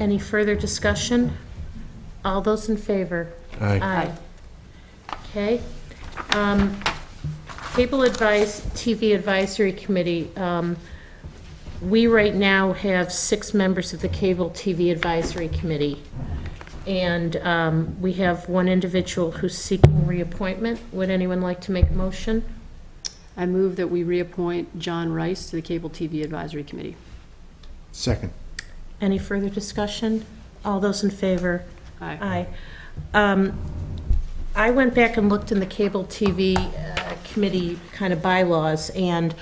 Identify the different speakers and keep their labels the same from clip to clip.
Speaker 1: Any further discussion? All those in favor?
Speaker 2: Aye.
Speaker 1: Aye. Okay. Um, Cable Advice, TV Advisory Committee, um, we right now have six members of the Cable TV Advisory Committee. And um, we have one individual who's seeking reappointment. Would anyone like to make a motion?
Speaker 3: I move that we reappoint John Rice to the Cable TV Advisory Committee.
Speaker 2: Second.
Speaker 1: Any further discussion? All those in favor?
Speaker 3: Aye.
Speaker 1: Aye. Um, I went back and looked in the cable TV uh, committee kind of bylaws, and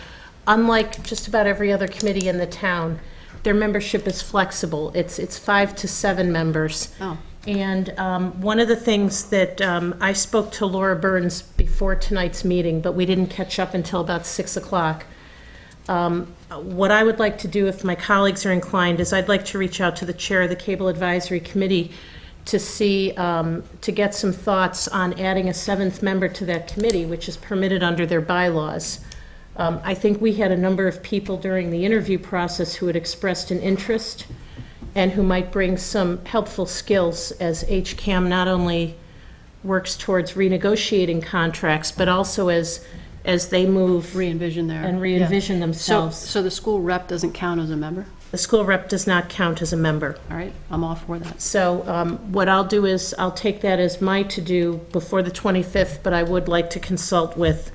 Speaker 1: unlike just about every other committee in the town, their membership is flexible. It's, it's five to seven members.
Speaker 3: Oh.
Speaker 1: And um, one of the things that, um, I spoke to Laura Burns before tonight's meeting, but we didn't catch up until about 6 o'clock. Um, What I would like to do, if my colleagues are inclined, is I'd like to reach out to the chair of the Cable Advisory Committee to see, um, to get some thoughts on adding a seventh member to that committee, which is permitted under their bylaws. Um, I think we had a number of people during the interview process who had expressed an interest and who might bring some helpful skills as HCAM not only works towards renegotiating contracts, but also as, as they move
Speaker 3: Re-envision there.
Speaker 1: and re-envision
Speaker 3: So,
Speaker 1: themselves.
Speaker 3: so the school rep doesn't count as a member?
Speaker 1: The school rep does not count as a member.
Speaker 3: All right, I'm all for that.
Speaker 1: So um, what I'll do is, I'll take that as my to-do before the 25th, but I would like to consult with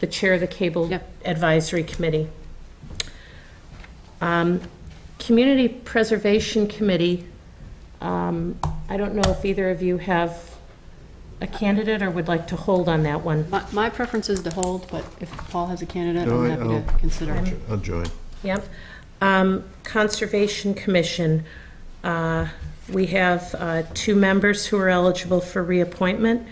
Speaker 1: the chair of the Cable
Speaker 3: Yep.
Speaker 1: Advisory Committee. Um, Community Preservation Committee, um, I don't know if either of you have a candidate or would like to hold on that one.
Speaker 3: My, my preference is to hold, but if Paul has a candidate,
Speaker 2: No,
Speaker 3: I'm
Speaker 2: I-
Speaker 3: happy to
Speaker 2: I'll-
Speaker 3: consider it.
Speaker 2: I'll join.
Speaker 1: Yep. Um, Conservation Commission, uh, we have uh, two members who are eligible for reappointment.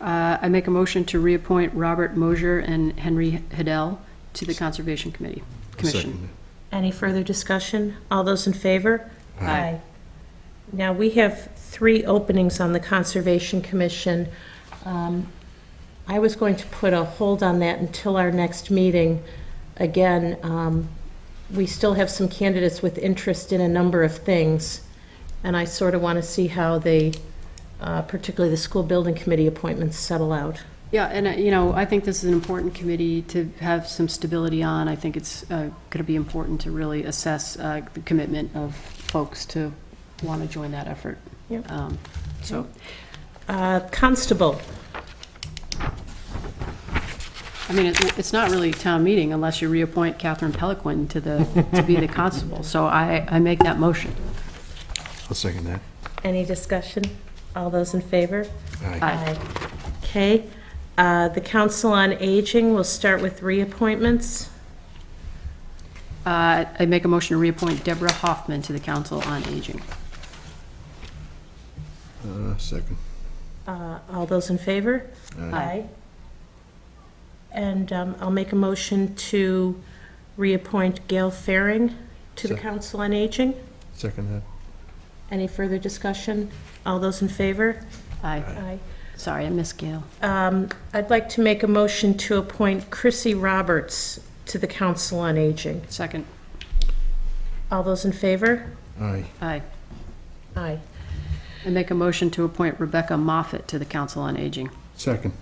Speaker 3: Uh, I make a motion to reappoint Robert Mosier and Henry Hiddell to the Conservation Committee, Commission.
Speaker 2: Second.
Speaker 1: Any further discussion? All those in favor?
Speaker 3: Aye.
Speaker 1: Now, we have three openings on the Conservation Commission. Um, I was going to put a hold on that until our next meeting. Again, um, we still have some candidates with interest in a number of things, and I sort of want to see how they, uh, particularly the school building committee appointments settle out.
Speaker 3: Yeah, and, uh, you know, I think this is an important committee to have some stability on. I think it's going to be important to really assess uh, the commitment of folks to want to join that effort.
Speaker 1: Yep.
Speaker 3: Um, So
Speaker 1: Uh, Constable,
Speaker 3: I mean, it- it's not really town meeting unless you reappoint Catherine Peliquin to the, to be the constable. So I, I make that motion.
Speaker 2: I'll second that.
Speaker 1: any discussion? All those in favor?
Speaker 2: Aye.
Speaker 1: Okay, uh, the Council on Aging, we'll start with reappointments.
Speaker 3: Uh, I make a motion to reappoint Deborah Hoffman to the Council on Aging.
Speaker 2: Uh, Second.
Speaker 1: Uh, All those in favor?
Speaker 3: Aye.
Speaker 1: And um, I'll make a motion to reappoint Gail Faring to the
Speaker 2: Sure.
Speaker 1: Council on Aging.
Speaker 2: Second that.
Speaker 1: Any further discussion? All those in favor?
Speaker 3: Aye.
Speaker 1: Aye.
Speaker 3: Sorry, I missed Gail.
Speaker 1: Um, I'd like to make a motion to appoint Chrissy Roberts to the Council on Aging.
Speaker 3: Second.
Speaker 1: All those in favor?
Speaker 2: Aye.
Speaker 3: Aye.
Speaker 1: Aye.
Speaker 3: I make a motion to appoint Rebecca Moffett to the Council on Aging.
Speaker 2: Second.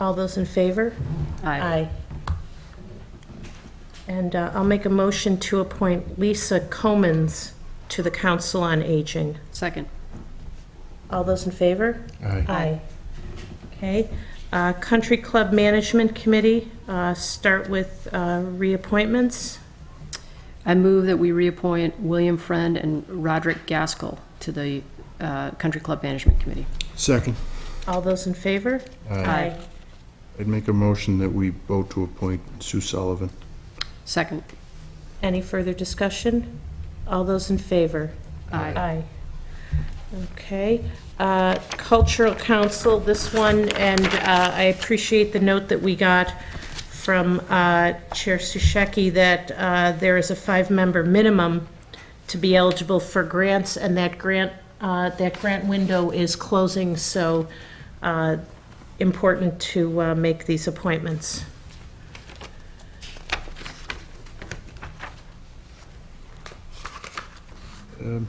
Speaker 1: All those in favor?
Speaker 3: Aye.
Speaker 1: And uh, I'll make a motion to appoint Lisa Comans to the Council on Aging.
Speaker 3: Second.
Speaker 1: All those in favor?
Speaker 2: Aye.
Speaker 1: Okay. Uh, Country Club Management Committee, uh, start with uh, reappointments.
Speaker 3: I move that we reappoint William Friend and Roderick Gaskell to the uh, Country Club Management Committee.
Speaker 2: Second.
Speaker 1: All those in favor?
Speaker 3: Aye.
Speaker 2: I'd make a motion that we vote to appoint Sue Sullivan.
Speaker 3: Second.
Speaker 1: Any further discussion? All those in favor?
Speaker 3: Aye.
Speaker 1: Aye. Okay. Uh, Cultural Council, this one, and uh, I appreciate the note that we got from uh, Chair Susheki that uh, there is a five-member minimum to be eligible for grants, and that grant, uh, that grant window is closing, so uh, important to uh, make these appointments.
Speaker 2: Um,